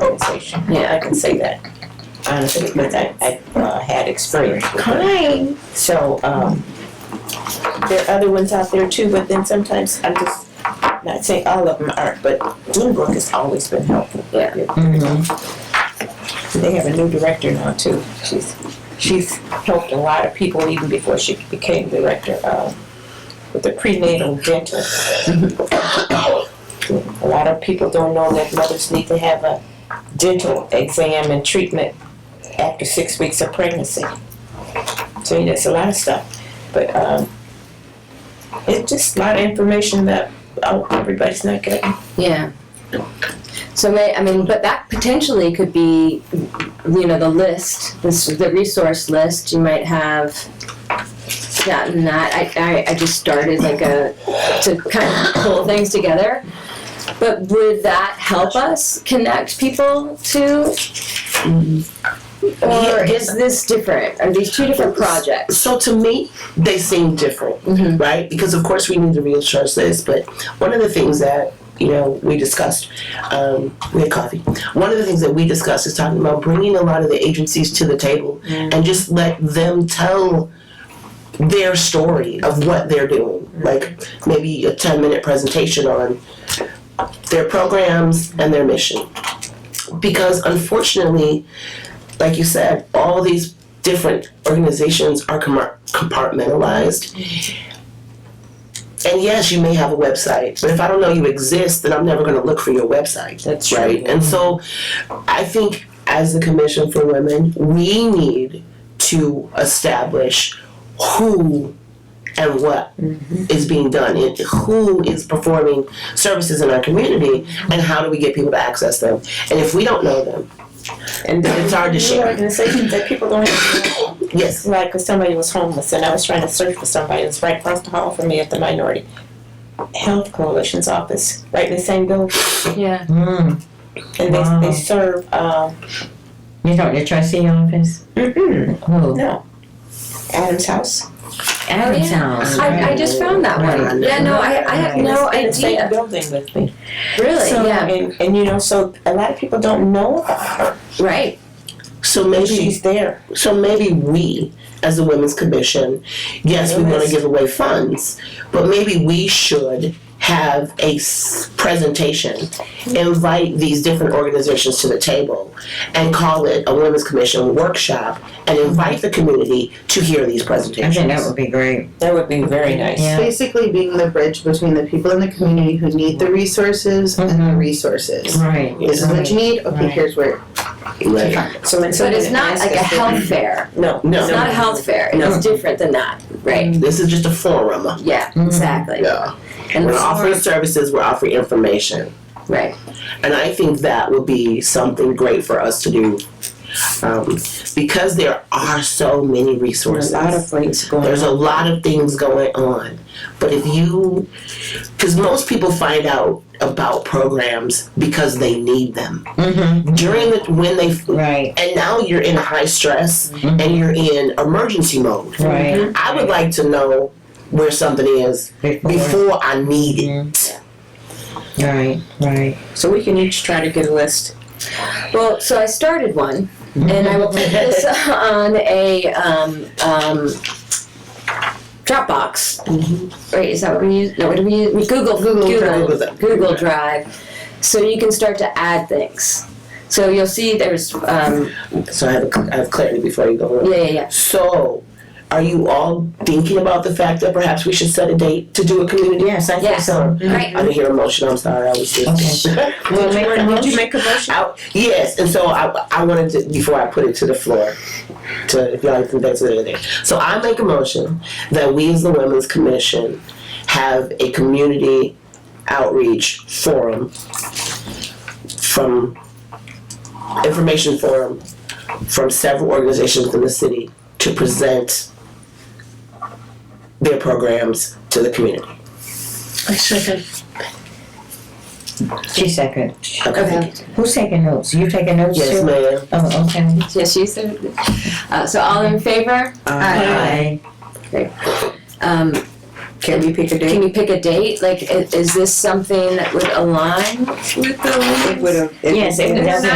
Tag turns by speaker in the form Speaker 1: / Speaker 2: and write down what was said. Speaker 1: organization.
Speaker 2: Yeah.
Speaker 1: I can say that honestly because I, I uh, had experience with it.
Speaker 2: Hi.
Speaker 1: So, um, there are other ones out there too, but then sometimes I'm just, not saying all of them aren't, but Doombrook has always been helpful. Mm-hmm.
Speaker 2: Yeah.
Speaker 1: They have a new director now too. She's, she's helped a lot of people even before she became director, uh, with the prenatal dental. A lot of people don't know that mothers need to have a dental exam and treatment after six weeks of pregnancy. So, you know, it's a lot of stuff, but, um, it's just a lot of information that, uh everybody's not getting.
Speaker 2: Yeah. So may, I mean, but that potentially could be, you know, the list, this, the resource list, you might have gotten that. I, I, I just started like a, to kind of pull things together. But would that help us connect people to? Or is this different? Are these two different projects?
Speaker 3: So to me, they seem different,
Speaker 2: Mhm.
Speaker 3: right? Because of course we need to reassess this, but one of the things that you know we discussed, um, we had coffee. One of the things that we discussed is talking about bringing a lot of the agencies to the table and just let them tell their story of what they're doing. Like maybe a ten minute presentation on their programs and their mission. Because unfortunately, like you said, all these different organizations are com- compartmentalized. And yes, you may have a website, but if I don't know you exist, then I'm never going to look for your website.
Speaker 1: That's
Speaker 3: right. And so I think as the Commission for Women, we need to establish who and what is being done, and who is performing services in our community, and how do we get people to access them. And if we don't know them,
Speaker 1: And the
Speaker 3: it's hard to
Speaker 1: New
Speaker 3: share.
Speaker 1: organizations that people don't have.
Speaker 3: Yes.
Speaker 1: Like, because somebody was homeless and I was trying to search for somebody that's right across the hall from me at the Minority Health Coalition's office, right in the same building.
Speaker 2: Yeah.
Speaker 4: Mm.
Speaker 1: And they,
Speaker 4: Wow.
Speaker 1: they serve, um,
Speaker 4: You know the trustee office?
Speaker 1: mm-mm,
Speaker 4: Oh,
Speaker 1: no, Adam's House.
Speaker 4: Adam's house.
Speaker 2: I, I just found that one. Yeah, no, I, I had no
Speaker 1: In the same
Speaker 2: idea.
Speaker 1: building with me.
Speaker 2: Really?
Speaker 1: So,
Speaker 2: Yeah.
Speaker 1: and, and you know, so a lot of people don't know about her.
Speaker 2: Right.
Speaker 3: So
Speaker 1: but
Speaker 3: maybe,
Speaker 1: She's there.
Speaker 3: so maybe we, as the Women's Commission, yes, we want to give away funds, but maybe we should have a s- presentation, invite these different organizations to the table, and call it a Women's Commission workshop, and invite the community to hear these
Speaker 4: I think that
Speaker 3: presentations.
Speaker 4: would be great.
Speaker 1: That would be very nice.
Speaker 4: Yeah.
Speaker 5: basically being the bridge between the people in the community who need
Speaker 4: Mm-hmm.
Speaker 5: the resources and the
Speaker 4: Mhm.
Speaker 5: resources.
Speaker 4: Right.
Speaker 5: This is what you need, okay,
Speaker 4: Right.
Speaker 5: here's where.
Speaker 3: Right.
Speaker 1: So when
Speaker 2: But
Speaker 1: somebody
Speaker 2: it's not
Speaker 1: asks
Speaker 2: like a
Speaker 1: us to-
Speaker 2: health fair.
Speaker 1: No,
Speaker 3: No.
Speaker 2: It's not a health fair. It's different than that. Right.
Speaker 3: This is just a forum.
Speaker 2: Yeah,
Speaker 4: Mhm.
Speaker 2: exactly.
Speaker 3: Yeah.
Speaker 2: And
Speaker 3: We're
Speaker 2: it's
Speaker 3: offering services, we're offering information.
Speaker 2: more- right.
Speaker 3: And I think that would be something great for us to do. Um, because there are so many
Speaker 1: there's
Speaker 3: resources.
Speaker 1: a lot of things going on.
Speaker 3: There's a lot of things going on. But if you, because most people find out about programs because they need them.
Speaker 4: Mm-hmm.
Speaker 3: During the, when they,
Speaker 4: Right.
Speaker 3: and now you're in high stress and you're in emergency mode.
Speaker 4: Right.
Speaker 3: I would like to know where something is before I need it.
Speaker 4: Mm-hmm. Right. Right.
Speaker 1: So we can each try to get a list.
Speaker 2: Well, so I started one, and I will put this on a um, um, Dropbox. Right? Is that what we use? No, what do we use? Google Google
Speaker 3: Drive.
Speaker 2: Google, Google Drive. So you can start to add things. So you'll see there's um,
Speaker 3: So I have, a cl- I have clarity before you go on.
Speaker 2: yeah yeah yeah
Speaker 3: So, are you all thinking about the fact that perhaps we should set a date to do a community?
Speaker 4: Yes,
Speaker 2: think
Speaker 4: Mm-hmm. I think
Speaker 2: so.
Speaker 4: so.
Speaker 3: I
Speaker 2: right.
Speaker 3: didn't hear a motion, I'm sorry, I was just.
Speaker 4: Well, make a
Speaker 1: Did you
Speaker 4: motion.
Speaker 1: make a motion?
Speaker 3: I- Yes, and so I, I wanted to, before I put it to the floor, to, if y'all think that's it there. So I make a motion that we as the Women's Commission have a community outreach forum from, information forum from several organizations in the city to present their programs to the community.
Speaker 4: She second.
Speaker 2: Okay.
Speaker 4: Who's taking notes? You taking notes
Speaker 3: Yes,
Speaker 4: too?
Speaker 3: ma'am.
Speaker 4: Oh, okay.
Speaker 2: Yes, you said. Uh, so all in favor?
Speaker 4: Aye.
Speaker 2: Um,
Speaker 5: Can we pick
Speaker 2: Can
Speaker 5: a date?
Speaker 2: you pick a date? Like, i- is this something that would align with the?
Speaker 5: It would have.
Speaker 4: Yes, it would have-